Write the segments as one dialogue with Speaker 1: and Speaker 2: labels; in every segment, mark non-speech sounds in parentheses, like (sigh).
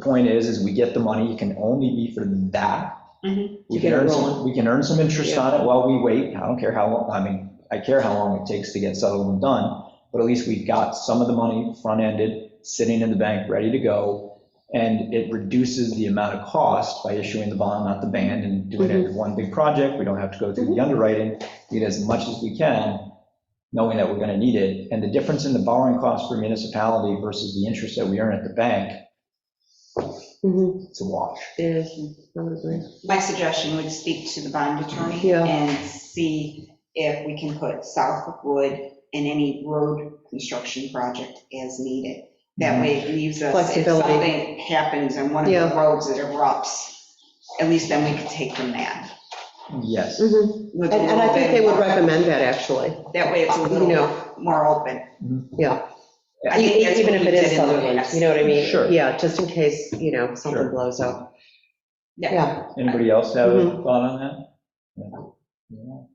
Speaker 1: point is, is we get the money, it can only be for that.
Speaker 2: Mhm.
Speaker 1: We can
Speaker 3: You get it
Speaker 1: earn some,
Speaker 3: rolling.
Speaker 1: we can earn some interest on it while we wait. I don't care how, long. I mean, I care how long it takes to get settled and done, but at least we've got some of the money front-ended, sitting in the bank, ready to go. And it reduces the amount of cost by issuing the bond, not the band, and doing it in one big project. We don't have to go through the underwriting, get as much as we can knowing that we're going to need it. And the difference in the borrowing cost for municipality versus the interest that we earn at the bank,
Speaker 3: Mhm.
Speaker 1: it's a wash.
Speaker 3: It is, probably.
Speaker 2: My suggestion would speak to the bond attorney
Speaker 3: Yeah.
Speaker 2: and see if we can put Southwood in any road construction project as needed. That way it leaves us, if
Speaker 3: Flexibility.
Speaker 2: something happens on one of the
Speaker 3: Yeah.
Speaker 2: roads that erupts, at least then we could take from that.
Speaker 1: Yes.
Speaker 3: Mhm.
Speaker 2: with a
Speaker 3: And and I
Speaker 2: little
Speaker 3: think
Speaker 2: bit
Speaker 3: they would
Speaker 2: more-
Speaker 3: recommend that, actually,
Speaker 2: That way it's a
Speaker 3: you
Speaker 2: little
Speaker 3: know.
Speaker 2: more open.
Speaker 3: Yeah.
Speaker 2: I think
Speaker 3: E-
Speaker 2: that's
Speaker 3: Even if
Speaker 2: what we
Speaker 3: it is
Speaker 2: did in the
Speaker 3: Sutherland,
Speaker 2: past.
Speaker 3: you know what I mean?
Speaker 1: Sure.
Speaker 3: Yeah, just in case, you know, something
Speaker 1: Sure.
Speaker 3: blows up.
Speaker 2: Yeah,
Speaker 3: Yeah,
Speaker 1: Anybody else have a
Speaker 3: Mhm.
Speaker 1: thought on that? No. No.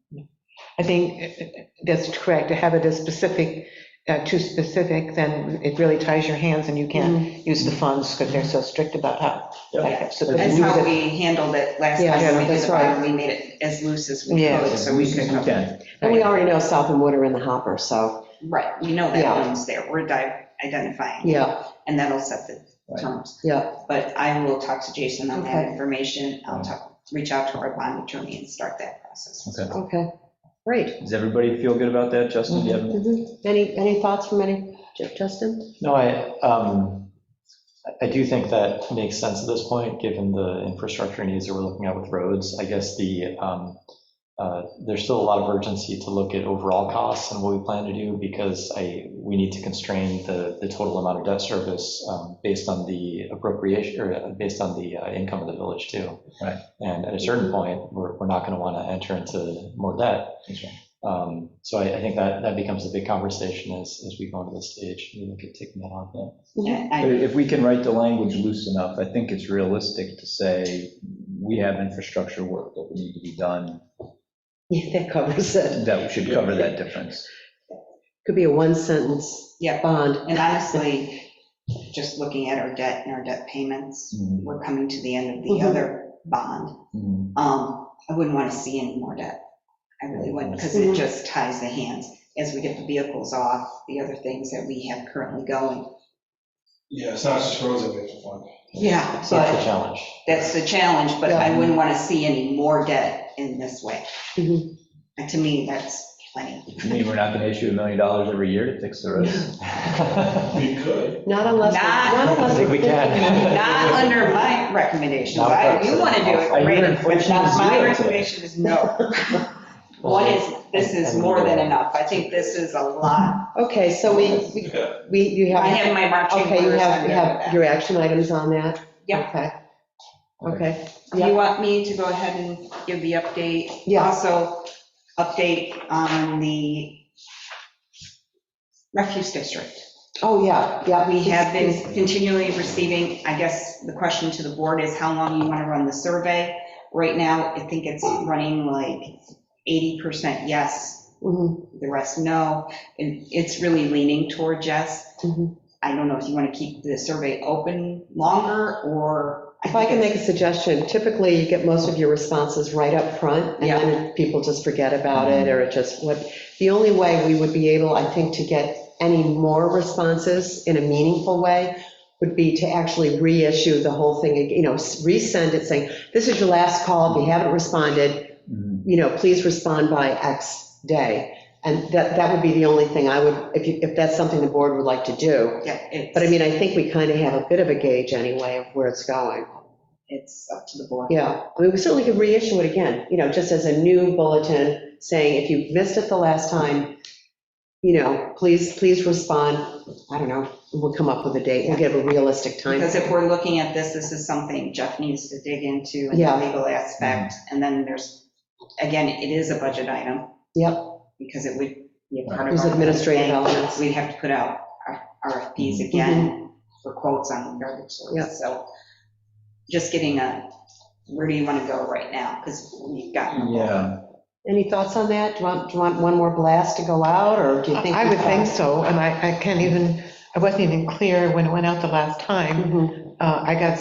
Speaker 4: I think that's correct, to have it as specific, uh, too specific, then it really ties your hands and you can't
Speaker 3: Mm-hmm.
Speaker 4: use the funds because they're so strict about how.
Speaker 1: Yep.
Speaker 4: So
Speaker 2: that's
Speaker 4: use
Speaker 2: how
Speaker 4: it-
Speaker 2: we handled it last
Speaker 3: Yeah,
Speaker 2: time. when we
Speaker 3: that's
Speaker 2: did the
Speaker 3: right.
Speaker 2: bond. We made it as loose as we
Speaker 4: Yeah.
Speaker 2: could,
Speaker 1: As
Speaker 2: so we
Speaker 1: loose
Speaker 2: could
Speaker 1: as we can.
Speaker 3: and we already know South and Wood are in the hopper, so,
Speaker 2: Right, we know
Speaker 3: Yeah.
Speaker 2: that one's there, we're di- identifying,
Speaker 3: yeah,
Speaker 2: and that'll set the
Speaker 1: Right.
Speaker 2: terms.
Speaker 3: yeah,
Speaker 2: But I will talk to Jason on that
Speaker 3: Okay.
Speaker 2: information, I'll talk, reach out to our bond attorney and start that process.
Speaker 1: Okay.
Speaker 3: okay, great.
Speaker 1: Does everybody feel good about that, Justin? Do you have-
Speaker 3: Mhm. Any, any thoughts from any, Ju- Justin?
Speaker 5: No, I, um, I- I do think that makes sense at this point, given the infrastructure needs that we're looking at with roads. I guess the, um, uh, there's still a lot of urgency to look at overall costs and what we plan to do because I, we need to constrain the, the total amount of debt service um, based on the appropriation, or uh, based on the uh, income of the village too.
Speaker 1: Right.
Speaker 5: And at a certain point, we're, we're not going to want to enter into more debt.
Speaker 1: That's right.
Speaker 5: Um, So I, I think that, that becomes a big conversation as, as we go into this stage, we look at taking that on. yeah.
Speaker 2: And
Speaker 1: But
Speaker 2: I-
Speaker 1: If we can write the language loose enough, I think it's realistic to say, we have infrastructure work that we need to be done,
Speaker 3: Yeah, that covers it.
Speaker 1: that should cover that difference.
Speaker 3: Could be a one sentence
Speaker 2: Yeah,
Speaker 3: bond.
Speaker 2: and honestly, just looking at our debt and our debt payments,
Speaker 1: Mhm.
Speaker 2: we're coming to the end of the
Speaker 3: Mhm.
Speaker 2: other bond.
Speaker 1: Mhm.
Speaker 2: Um, I wouldn't want to see any more debt, I really wouldn't, because it
Speaker 3: Mhm.
Speaker 2: just ties the hands. As we get the vehicles off, the other things that we have currently going,
Speaker 6: Yeah, it's not just roads that make the fund.
Speaker 2: yeah,
Speaker 5: So
Speaker 2: but
Speaker 5: That's the challenge.
Speaker 2: That's the challenge, but I
Speaker 3: Yeah.
Speaker 2: wouldn't want to see any more debt in this way.
Speaker 3: Mhm.
Speaker 2: And to me, that's plenty.
Speaker 1: You mean we're not going to issue a million dollars every year to fix the roads?
Speaker 6: We could.
Speaker 3: Not unless,
Speaker 2: Not-
Speaker 3: not
Speaker 5: I
Speaker 3: unless.
Speaker 5: think we can.
Speaker 2: (laughs) Not under my recommendations.
Speaker 5: Not
Speaker 2: I, you want to do it,
Speaker 5: personal.
Speaker 1: I hear
Speaker 2: great, but
Speaker 1: inflation is
Speaker 2: not my
Speaker 1: zero.
Speaker 2: recommendation is (laughs) no. One is, this is more than enough. I think this is a lot.
Speaker 3: Okay, so we, we-
Speaker 6: Yeah,
Speaker 3: we, you have.
Speaker 2: I have my marching
Speaker 3: Okay, you
Speaker 2: orders
Speaker 3: have,
Speaker 2: on
Speaker 3: you have
Speaker 2: that.
Speaker 3: your action items on that?
Speaker 2: Yeah.
Speaker 3: Okay, okay,
Speaker 2: Do you want me to go ahead and give the update?
Speaker 3: Yeah.
Speaker 2: Also, update on the refuse district. Uh,
Speaker 3: oh, yeah, yeah.
Speaker 2: We have been continually receiving, I guess the question to the board is how long you want to run the survey. Right now, I think it's running like 80% yes,
Speaker 3: Mhm,
Speaker 2: the rest no, and it's really leaning toward yes.
Speaker 3: mhm.
Speaker 2: I don't know if you want to keep the survey open longer or.
Speaker 3: If I can
Speaker 2: think
Speaker 3: make a suggestion, typically you get most of your responses right up front, and then people just forget about it, or it just, what, the only way we would be able, I think, to get any more responses in a meaningful way would be to actually reissue the whole thing, you know, resend it saying, this is your last call, if you haven't responded,
Speaker 1: Mhm.
Speaker 3: you know, please respond by X day. And that, that would be the only thing I would, if you, if that's something the board would like to do.
Speaker 2: Yeah, it's-
Speaker 3: But I mean, I think we kind of have a bit of a gauge anyway of where it's going.
Speaker 2: It's up to the board.
Speaker 3: Yeah, I mean, we certainly could reissue it again, you know, just as a new bulletin saying, if you missed it the last time, you know, please, please respond. I don't know, we'll come up with a date, we'll give a realistic time.
Speaker 2: Because if we're looking at this, this is something Jeff needs to dig into and the
Speaker 3: Yeah.
Speaker 2: legal aspect. And then there's, again, it is a budget item.
Speaker 3: Yep.
Speaker 2: Because it would be a part of.
Speaker 3: There's
Speaker 2: our-
Speaker 3: administrative elements. Mm-hmm.
Speaker 2: We'd have to put out our RFPs again for quotes on garbage
Speaker 3: Yep.
Speaker 2: service. So just getting a, where do you want to go right now? Because we've gotten.
Speaker 1: Yeah,
Speaker 3: Any thoughts on that? Do you want, do you want one more blast to go out, or do you think?
Speaker 4: I would think so, and I, I can't even, I wasn't even clear when it went out the last time.
Speaker 3: Mhm.
Speaker 4: Uh, I got